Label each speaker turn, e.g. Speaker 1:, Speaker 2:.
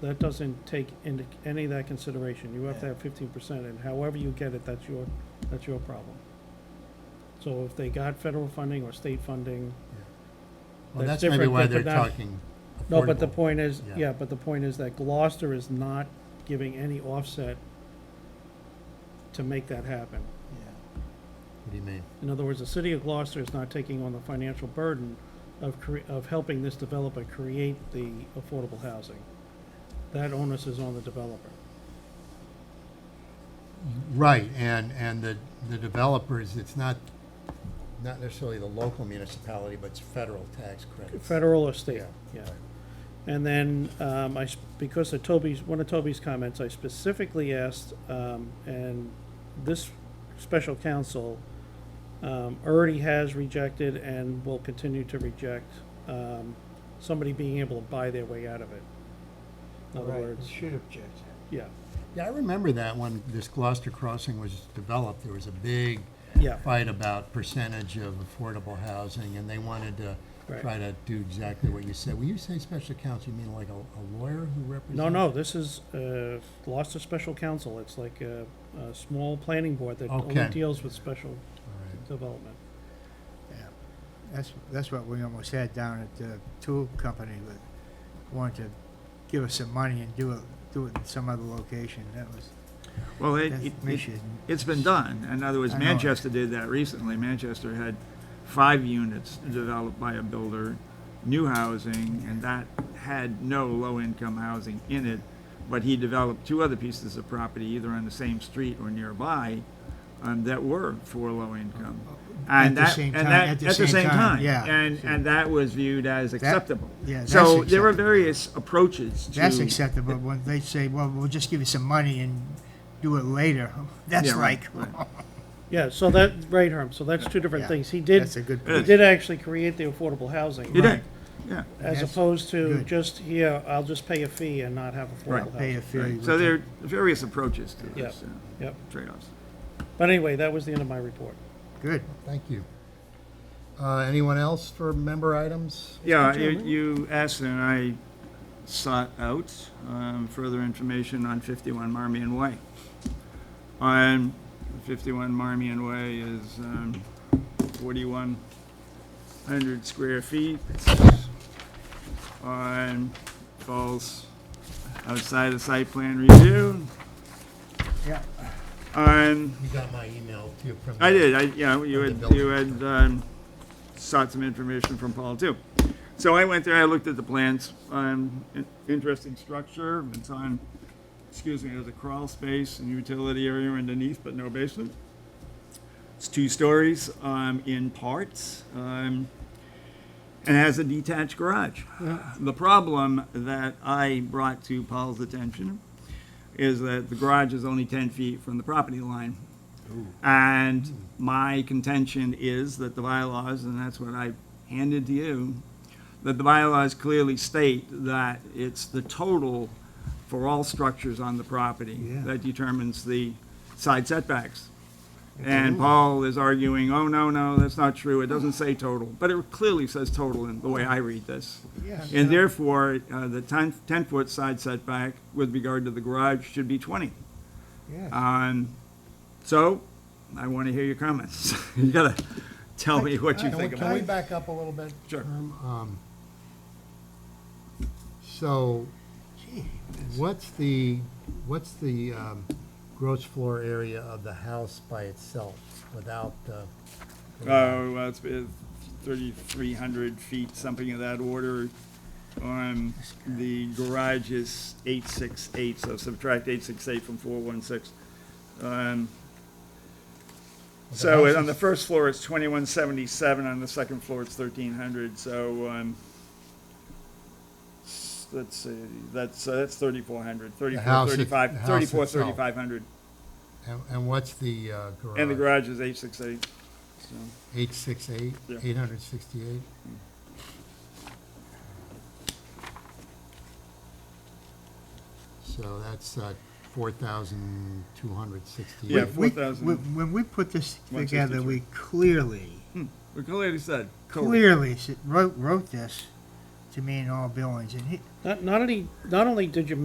Speaker 1: that doesn't take into any of that consideration. You have to
Speaker 2: Yeah.
Speaker 1: have fifteen percent, and however you get it, that's your, that's your problem. So if they got federal funding or state funding,
Speaker 2: Well,
Speaker 1: That's
Speaker 2: that's maybe
Speaker 1: different
Speaker 2: why they're
Speaker 1: than the-
Speaker 2: talking affordable.
Speaker 1: no, but the point is,
Speaker 2: Yeah.
Speaker 1: yeah, but the point is that Gloucester is not giving any offset to make that happen.
Speaker 2: Yeah. What do you mean?
Speaker 1: In other words, the city of Gloucester is not taking on the financial burden of cre- of helping this developer create the affordable housing. That onus is on the developer.
Speaker 2: Right, and, and the, the developers, it's not, not necessarily the local municipality, but it's federal tax credits.
Speaker 1: Federal or state, yeah.
Speaker 2: Yeah, right.
Speaker 1: And then, um, I, s- because of Toby's, one of Toby's comments, I specifically asked, um, and this special counsel, um, already has rejected and will continue to reject, um, somebody being able to buy their way out of it. In other
Speaker 3: Right,
Speaker 1: words,
Speaker 3: you Should object.
Speaker 1: yeah,
Speaker 2: Yeah, I remember that when this Gloucester Crossing was developed, there was a big
Speaker 1: yeah,
Speaker 2: fight about percentage of affordable housing, and they wanted to
Speaker 1: Right.
Speaker 2: try to do exactly what you said. When you say special counsel, you mean like a, a lawyer who represents?
Speaker 1: No, no, this is, uh, Gloucester Special Council, it's like a, a small planning board that only
Speaker 2: Okay.
Speaker 1: deals with special
Speaker 2: All right.
Speaker 1: development.
Speaker 3: Yeah. That's, that's what we almost had down at the tool company with, wanted to give us some money and do it, do it in some other location. That was,
Speaker 4: Well, it,
Speaker 3: that's,
Speaker 4: it,
Speaker 3: we should.
Speaker 4: has been done. In other words,
Speaker 3: I know.
Speaker 4: Manchester did that recently. Manchester had five units developed by a builder, new housing, and that had no low-income housing in it. But he developed two other pieces of property, either on the same street or nearby, um, that were for low income.
Speaker 3: Oh, At
Speaker 4: And
Speaker 3: the
Speaker 4: that,
Speaker 3: same
Speaker 4: and
Speaker 3: time-
Speaker 4: that, at the same time.
Speaker 3: yeah.
Speaker 4: And, and that was viewed as acceptable.
Speaker 3: yeah, that's
Speaker 4: So there were
Speaker 3: acceptable.
Speaker 4: various approaches to.
Speaker 3: That's acceptable, when they say, well, we'll just give you some money and do it later, that's
Speaker 4: Yeah,
Speaker 3: like,
Speaker 4: right, right.
Speaker 1: Yeah, so that, right, Herm, so that's two different
Speaker 3: Yeah,
Speaker 1: things. He did,
Speaker 3: that's a good
Speaker 1: he
Speaker 3: point.
Speaker 1: did actually create the affordable housing.
Speaker 4: You did, yeah.
Speaker 1: As
Speaker 3: Yes,
Speaker 1: opposed to
Speaker 3: good.
Speaker 1: just, here, I'll just pay a fee and not have
Speaker 4: Right.
Speaker 1: affordable
Speaker 3: Pay a
Speaker 1: housing.
Speaker 3: fee.
Speaker 4: So there are various approaches to
Speaker 1: Yeah.
Speaker 4: this, uh,
Speaker 1: Yep,
Speaker 4: trade-offs.
Speaker 1: but anyway, that was the end of my report.
Speaker 3: Good.
Speaker 2: Thank you. Uh, anyone else for member items?
Speaker 4: Yeah, you,
Speaker 1: Chairman.
Speaker 4: you asked and I sought out um, further information on 51 Marmion Way. On 51 Marmion Way is um, 4,100 square feet. On falls outside of site plan review. Um,
Speaker 3: Yeah.
Speaker 4: On
Speaker 2: You got my email to you from.
Speaker 4: I did, I, yeah, you
Speaker 2: Of
Speaker 4: had,
Speaker 2: the
Speaker 4: you had um, sought some information from Paul too. So I went there, I looked at the plans, um, in- interesting structure, it's on, excuse me, there's a crawl space and utility area underneath, but no basement. It's two stories, um, in parts, um, and has a detached garage. The problem that I brought to Paul's attention is that the garage is only ten feet from the property line. And my contention is that the bylaws, and that's what I handed to you, that the bylaws clearly state that it's the total for all structures on the property
Speaker 3: Yeah.
Speaker 4: that determines the side setbacks. And Paul is arguing, oh, no, no, that's not true, it doesn't say total, but it clearly says total in the way I read this.
Speaker 3: Yeah.
Speaker 4: And therefore, uh, the 10 10-foot side setback with regard to the garage should be 20.
Speaker 3: Yeah.
Speaker 4: Um, so, I want to hear your comments. You gotta tell me what you
Speaker 2: Can we-
Speaker 4: think
Speaker 2: Can
Speaker 4: about
Speaker 2: we
Speaker 4: it.
Speaker 2: back up a little bit?
Speaker 4: Sure.
Speaker 2: Herm? Um, So,
Speaker 3: Gee,
Speaker 2: what's the, what's the um, gross floor area of the house by itself without the?
Speaker 4: Oh, well, it's been thirty-three hundred feet, something of that order. Um, the garage is eight-six-eight, so subtract eight-six-eight from four-one-six. Um,
Speaker 2: the
Speaker 4: so
Speaker 2: house
Speaker 4: on
Speaker 2: is-
Speaker 4: the first floor, it's twenty-one seventy-seven, on the second floor, it's thirteen hundred, so, um, s- let's see, that's, uh, that's thirty-four hundred, thirty-four,
Speaker 2: house it- the
Speaker 4: thirty-five,
Speaker 2: house
Speaker 4: thirty-four,
Speaker 2: itself.
Speaker 4: thirty-five hundred.
Speaker 2: And, and what's the uh, garage?
Speaker 4: And the garage is eight-six-eight, so.
Speaker 2: Eight six eight,
Speaker 4: Yeah.
Speaker 2: eight hundred sixty-eight? So that's uh, four thousand two hundred sixty-eight.
Speaker 4: Yeah,
Speaker 3: we-
Speaker 4: 4,000.
Speaker 3: When when we put this together,
Speaker 4: 163.
Speaker 3: we clearly,
Speaker 4: We clearly said. total.
Speaker 3: clearly s- wrote, wrote this to mean all buildings, and he,
Speaker 1: Not, not only, not only did you